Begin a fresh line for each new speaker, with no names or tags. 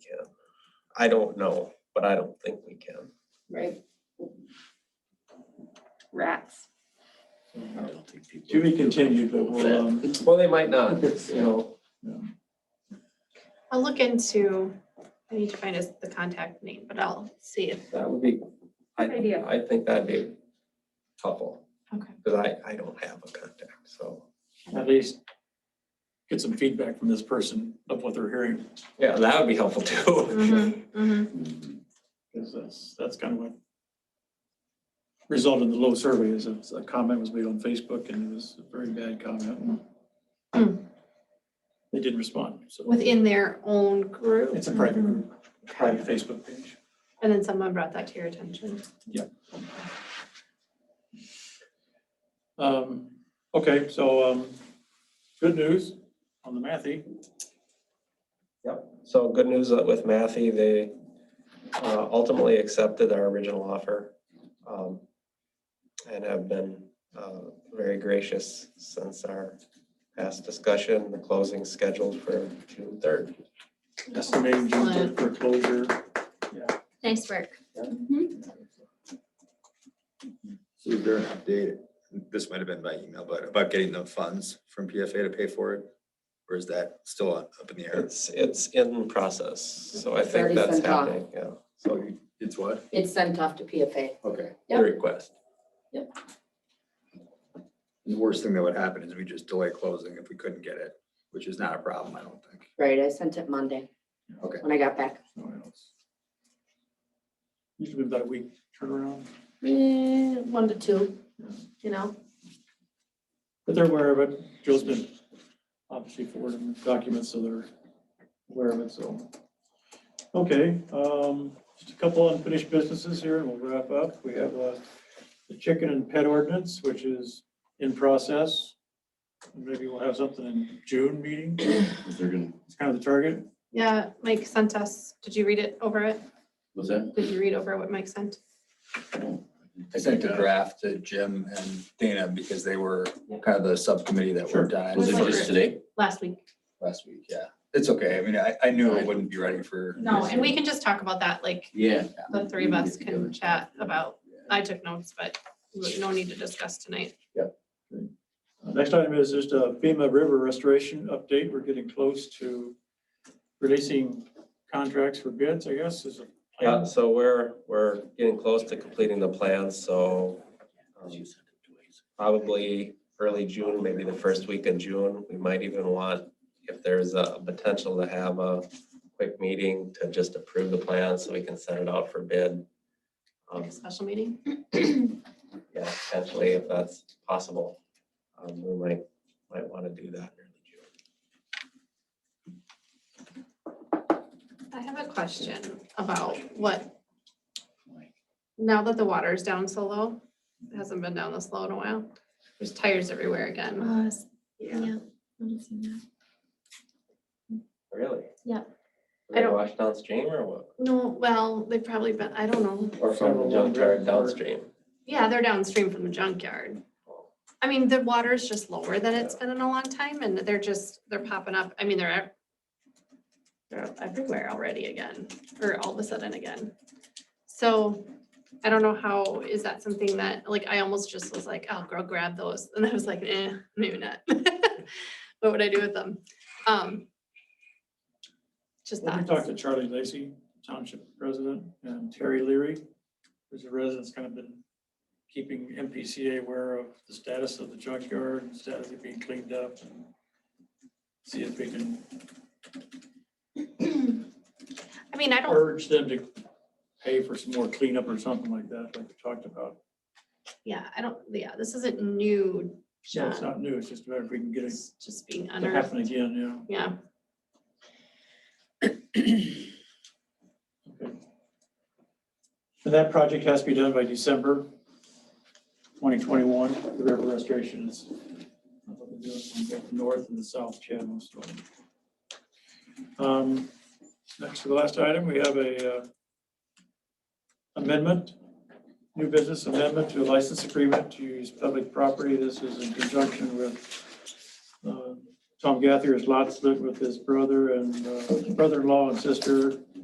I don't know, but I don't think we can.
right? Rats.
To be continued, but we'll, um,
Well, they might not, you know,
I'll look into, I need to find us the contact name, but I'll see if,
that would be,
Good idea.
I think that'd be helpful.
Okay.
Because I, I don't have a contact, so,
at least get some feedback from this person of what they're hearing.
yeah, that would be helpful too.
Mhm, mhm.
Because that's, that's kind of what resulted in the low survey is a a comment was made on Facebook and it was a very bad comment. and They didn't respond, so
within their own group. Mm-hmm.
it's a private, group, private Facebook page.
And then someone brought that to your attention.
Um, okay, so, um, good news on the Matthew.
So good news with Matthew, they uh, ultimately accepted our original offer. um, And have been uh, very gracious since our past discussion, the closing scheduled for June third.
estimating June third for closure.
Nice work.
So is there an update, this might have been by email, but about getting the funds from PFA to pay for it? Or is that still up in the air?
It's, it's in process, so I
It's
think
already
that's
sent off.
happening, yeah,
So it's what?
It's sent off to PFA.
Okay.
the
Yep.
request.
The worst thing that would happen is we just delay closing if we couldn't get it, which is not a problem, I don't think.
Right, I sent it Monday
Okay.
when I got back.
Usually about a week turnaround,
Eh, one to two, you know?
but they're aware of it. Jill's been obviously forwarding documents, so they're aware of it, so. Okay, um, just a couple unfinished businesses here and we'll wrap up. We have, uh, the chicken and pet ordinance, which is in process. Maybe we'll have something in June meeting.
They're gonna,
It's kind of the target.
Yeah, Mike sent us, did you read it over it?
what's that?
Did you read over what Mike sent?
I sent a draft to Jim and Dana because they were kind of the subcommittee that worked on it.
Was it
Like-
just today?
Last week?
Last week, yeah. It's okay. I mean, I, I knew it wouldn't be ready for.
No, and we can just talk about that, like,
Yeah.
the three of us can chat about, I took notes, but no need to discuss tonight.
Next item is just a FEMA river restoration update. We're getting close to releasing contracts for bids, I guess, is a
Yeah, Uh, so we're, we're getting close to completing the plans, so um, probably early June, maybe the first week in June, we might even want, if there's a potential to have a quick meeting to just approve the plan, so we can send it out for bid. Um,
Like a special meeting?
Yeah, potentially, if that's possible, um, we might, might want to do that in early June.
I have a question about what, now that the water is down so low, it hasn't been down this low in a while, there's tires everywhere again.
Uh,
Yeah.
Yeah. noticing that.
Really?
Yeah.
Did they
I don't-
Wash downstream or what?
No, well, they've probably been, I don't know.
Or from the
Several
junkyard
hundred.
downstream.
Yeah, they're downstream from the junkyard. I mean, the water is just lower than it's been in a long time and they're just, they're popping up. I mean, they're ev- they're everywhere already again, or all of a sudden again. So I don't know how, is that something that, like, I almost just was like, oh, girl, grab those. And I was like, eh, maybe not. What would I do with them? Um Just
Well, We
that.
talked to Charlie Lacy, Township President, and Terry Leary, who's a resident, that's kind of been keeping MPCA aware of the status of the junkyard, and status of being cleaned up, and see if we can
I mean, I don't
urge them to pay for some more cleanup or something like that, like we talked about.
Yeah, I don't, yeah, this isn't new,
So it's
John,
not new, it's just about if we can get it
it's just being
to happen
unearthed,
again, yeah.
yeah.
And that project has to be done by December 2021, the river restoration is. North and the south channels. so. Um, Next to the last item, we have a uh, amendment, new business amendment to a license agreement to use public property. This is in conjunction with uh, Tom Gathier's lot split with his brother and uh, brother-in-law and sister